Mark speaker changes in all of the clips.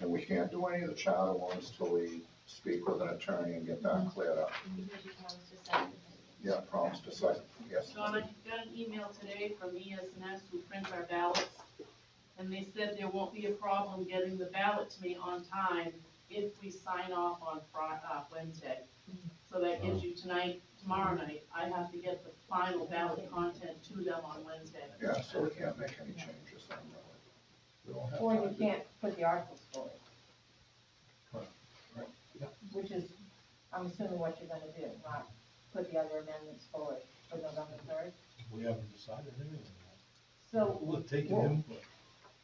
Speaker 1: And we can't do any of the charter ones till we speak with an attorney and get that cleared up. Yeah, promise to second, yes.
Speaker 2: Sean, I got an email today from E ESNS who prints our ballots, and they said there won't be a problem getting the ballot to me on time if we sign off on Fri- uh, Wednesday. So that gives you tonight, tomorrow night, I have to get the final ballot content to them on Wednesday.
Speaker 1: Yeah, so we can't make any changes on that. We don't have
Speaker 3: Or
Speaker 1: time
Speaker 3: you
Speaker 1: to-
Speaker 3: can't put the articles forward.
Speaker 1: Right, right, yeah.
Speaker 3: Which is, I'm assuming what you're gonna do, not put the other amendments forward for November third.
Speaker 4: We haven't decided anything.
Speaker 3: So,
Speaker 4: We'll take
Speaker 1: Well-
Speaker 4: an input.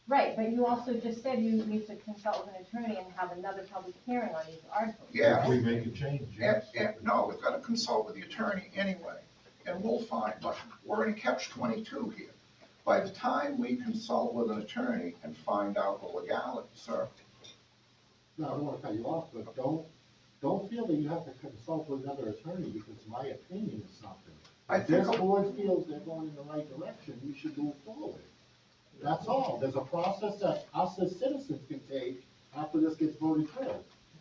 Speaker 3: right, but you also just said you need to consult with an attorney and have another public hearing on these articles.
Speaker 1: Yeah.
Speaker 4: If we make a change,
Speaker 1: And,
Speaker 4: yes.
Speaker 1: and, no, we've gotta consult with the attorney anyway, and we'll find, but we're in catch twenty-two here. By the time we consult with an attorney and find out the legality, sir,
Speaker 5: No, I don't wanna cut you off, but don't, don't feel that you have to consult with another attorney, because my opinion is something.
Speaker 1: I
Speaker 5: If this
Speaker 1: think-
Speaker 5: board feels they're going in the right direction, we should move forward. That's all, there's a process that us as citizens can take after this gets voted through,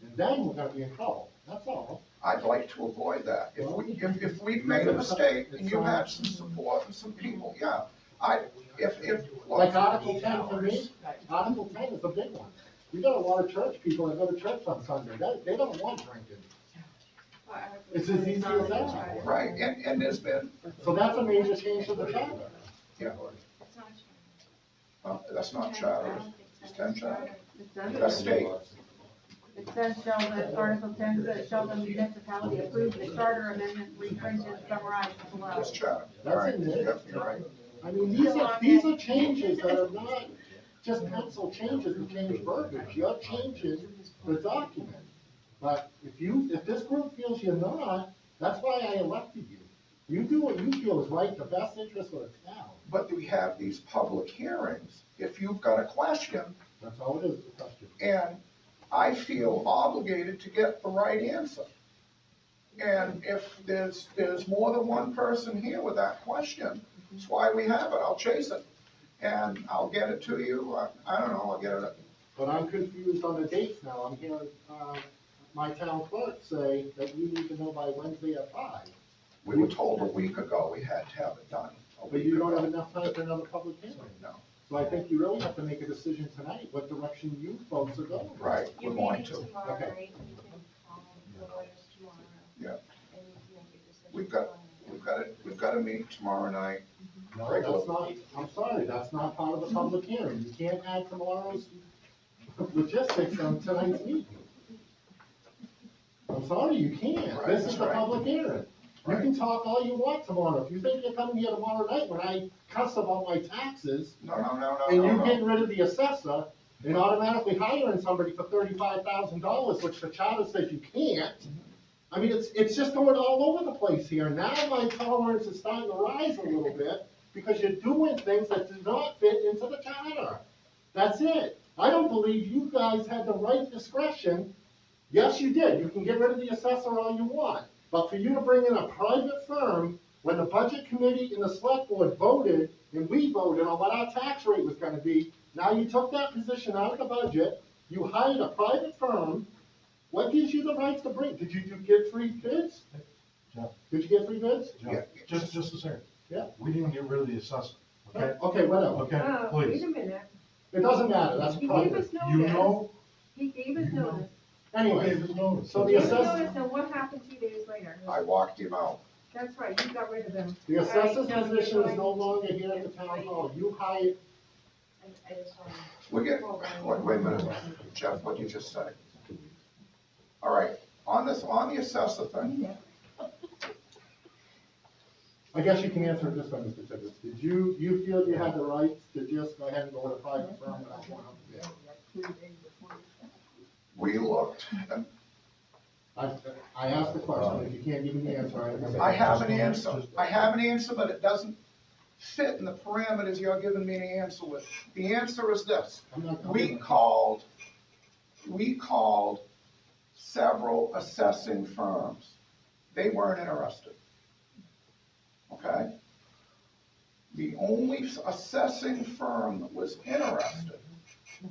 Speaker 5: and then we're gonna be in trouble, that's all.
Speaker 1: I'd like to avoid that. If we, if, if we've made a mistake and you had some support and some people, yeah, I, if, if.
Speaker 5: Like Article ten for me, Article ten is a big one. We got a lot of church people that go to church on Sunday, they, they don't want drinking, it's as easy as that.
Speaker 1: Right, and, and there's been,
Speaker 5: So that's a major change to the charter.
Speaker 1: yeah, well, that's not charter, it's ten charter.
Speaker 6: It
Speaker 1: That's
Speaker 6: says,
Speaker 1: state,
Speaker 6: it says shall the, Article ten says shall the municipality approve the charter amendment reprinted summarized below.
Speaker 1: it's charter.
Speaker 5: That's
Speaker 1: Right,
Speaker 5: in there.
Speaker 1: Yep, you're right.
Speaker 5: I mean, these are, these are changes that are not just pencil changes to change verbiage, you're changing the document. But if you, if this group feels you're not, that's why I elected you. You do what you feel is right, the best interest of the town,
Speaker 1: But we have these public hearings. If you've got a question,
Speaker 5: that's all it is, the question.
Speaker 1: and I feel obligated to get the right answer. And if there's, there's more than one person here with that question, that's why we have it, I'll chase it. And I'll get it to you, I, I don't know, I'll get it,
Speaker 5: But I'm confused on the dates now, I'm hearing, uh, my town clerk say that we need to know by Wednesday at five.
Speaker 1: we were told a week ago we had to have it done. a
Speaker 5: But
Speaker 1: week
Speaker 5: you don't
Speaker 1: ago.
Speaker 5: have enough time for another public hearing.
Speaker 1: No,
Speaker 5: So I think you really have to make a decision tonight, what direction you folks are going.
Speaker 1: right,
Speaker 7: You're
Speaker 1: we're going
Speaker 7: meeting
Speaker 1: to.
Speaker 7: tomorrow,
Speaker 5: Okay.
Speaker 7: right? You can call the lawyers tomorrow.
Speaker 1: Yeah.
Speaker 7: And you can make your decision.
Speaker 1: We've got- We've got it, we've got a meeting tomorrow night,
Speaker 5: No, that's not, I'm sorry, that's not part of the public hearing, you can't add tomorrow's logistics on tonight's meeting. I'm sorry, you can't, this is the public hearing. You can talk all you want tomorrow, if you think you're coming here tomorrow night when I cuss about my taxes,
Speaker 1: no, no, no, no,
Speaker 5: and
Speaker 1: no,
Speaker 5: you
Speaker 1: no.
Speaker 5: getting rid of the assessor, and automatically hiring somebody for thirty-five thousand dollars, which the charter says you can't. I mean, it's, it's just going all over the place here, now my tolerance is starting to rise a little bit, because you're doing things that do not fit into the charter. That's it, I don't believe you guys had the right discretion, yes, you did, you can get rid of the assessor all you want, but for you to bring in a private firm when the budget committee and the select board voted, and we voted on what our tax rate was gonna be, now you took that position out of the budget, you hired a private firm, what gives you the rights to bring, did you, you get free bids?
Speaker 4: No.
Speaker 5: Did you get free bids?
Speaker 4: John,
Speaker 1: Yeah.
Speaker 4: Just, just a second.
Speaker 5: Yeah.
Speaker 4: We didn't get rid of the assessment, okay?
Speaker 5: Okay, whatever,
Speaker 4: Okay,
Speaker 6: Uh, Wait
Speaker 4: please.
Speaker 6: a minute,
Speaker 5: it doesn't matter, that's
Speaker 6: he gave
Speaker 5: private,
Speaker 6: us
Speaker 4: You
Speaker 6: notice,
Speaker 4: know,
Speaker 6: he gave us
Speaker 4: You know.
Speaker 6: notice,
Speaker 4: you
Speaker 5: anyway,
Speaker 4: gave us notice.
Speaker 5: So
Speaker 6: he
Speaker 5: the
Speaker 6: gave us
Speaker 5: assess-
Speaker 6: notice, and what happened two days later?
Speaker 1: I walked him out.
Speaker 6: That's right, you got rid of them.
Speaker 5: the
Speaker 6: All right,
Speaker 5: assessor's
Speaker 6: now you're
Speaker 5: position is no
Speaker 6: going-
Speaker 5: longer here at the town hall, you hired,
Speaker 7: I- I just wanna-
Speaker 1: We're getting, wait, wait a minute, Jeff, what you just said. All right, on this, on the assessor thing,
Speaker 5: I guess you can answer it this way, Mr. Tibbetts, did you, you feel you had the rights to just go ahead and go with a private firm without going up there?
Speaker 1: we looked, and
Speaker 5: I, I asked the question, if you can't give me the answer, I.
Speaker 1: I have an answer, I have an answer, but it doesn't fit in the parameters you're giving me an answer with. The answer is this,
Speaker 5: I'm not gonna-
Speaker 1: we called, we called several assessing firms. They weren't interested. Okay? The only assessing firm that was interested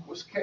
Speaker 1: was K